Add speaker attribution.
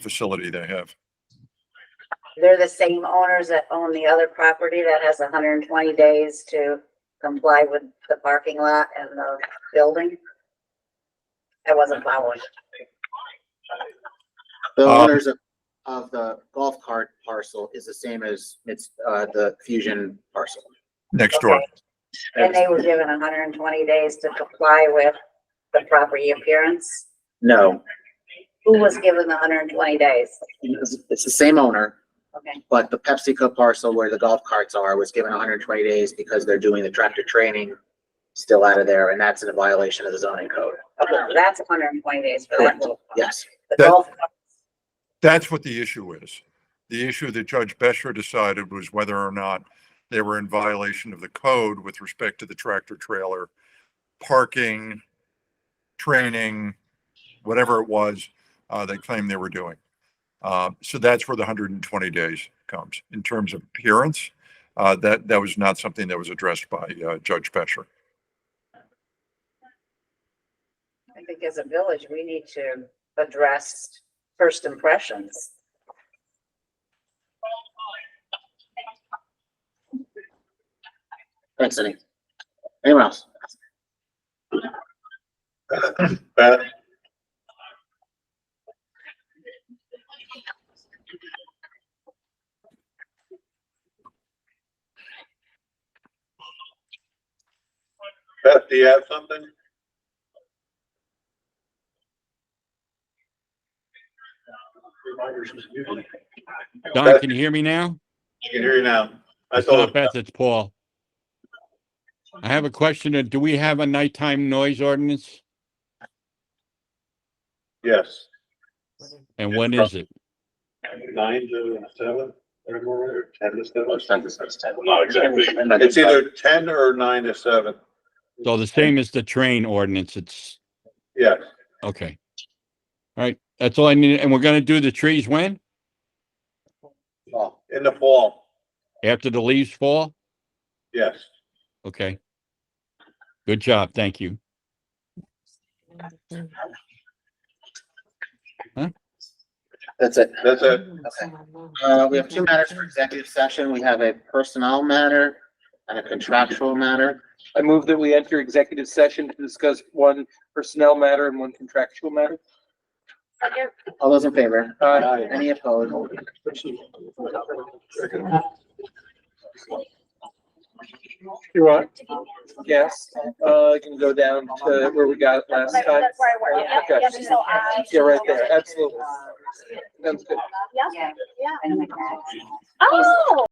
Speaker 1: facility they have.
Speaker 2: They're the same owners that own the other property that has hundred and twenty days to comply with the parking lot and the building. I wasn't following.
Speaker 3: The
Speaker 1: Um,
Speaker 3: owners of, of the golf cart parcel is the same as it's, uh, the Fusion parcel.
Speaker 1: Next door.
Speaker 2: Okay. And they were given hundred and twenty days to comply with the property appearance.
Speaker 3: No,
Speaker 2: Who was given the hundred and twenty days?
Speaker 3: it's it's the same owner,
Speaker 2: Okay,
Speaker 3: but the PepsiCo parcel where the golf carts are was given hundred and twenty days because they're doing the tractor training still out of there, and that's in a violation of the zoning code.
Speaker 2: okay, that's hundred and twenty days for that
Speaker 3: Correct.
Speaker 2: little.
Speaker 3: Yes,
Speaker 2: The
Speaker 1: That-
Speaker 2: golf cart.
Speaker 1: That's what the issue is. The issue that Judge Bescher decided was whether or not they were in violation of the code with respect to the tractor trailer, parking, training, whatever it was, uh, they claimed they were doing. Uh, so that's where the hundred and twenty days comes. In terms of appearance, uh, that, that was not something that was addressed by, uh, Judge Bescher.
Speaker 2: I think as a village, we need to address first impressions.
Speaker 3: thanks, Cindy. Anyone else?
Speaker 4: Beth? Beth, do you have something?
Speaker 5: Don, can you hear me now?
Speaker 4: I can hear you now. I
Speaker 5: It's not
Speaker 4: told,
Speaker 5: Beth, it's Paul. I have a question. uh, Do we have a nighttime noise ordinance?
Speaker 4: yes,
Speaker 5: And when is it?
Speaker 4: nine to seven, or more, or ten to seven.
Speaker 6: Not exactly.
Speaker 4: It's either ten or nine to seven,
Speaker 5: So the same as the train ordinance. It's,
Speaker 4: yes.
Speaker 5: okay. All right, that's all I need. And we're gonna do the trees when?
Speaker 3: Paul,
Speaker 4: In the fall,
Speaker 5: After the leaves fall?
Speaker 4: yes.
Speaker 5: Okay. Good job. Thank you.
Speaker 3: That's it.
Speaker 4: That's it.
Speaker 3: Okay. Uh, we have two matters for executive session. We have a personnel matter and a contractual matter.
Speaker 7: I move that we enter executive session to discuss one personnel matter and one contractual matter.
Speaker 3: All those in favor?
Speaker 4: Aye.
Speaker 3: Any opposed?
Speaker 7: You're on. Yes, uh, you can go down to where we got it last time.
Speaker 8: That's where I work. Yeah,
Speaker 7: Okay.
Speaker 8: yeah, so uh, I-
Speaker 7: Yeah, right there, absolutely. Sounds good.
Speaker 8: Yeah,
Speaker 2: Yeah.
Speaker 8: oh.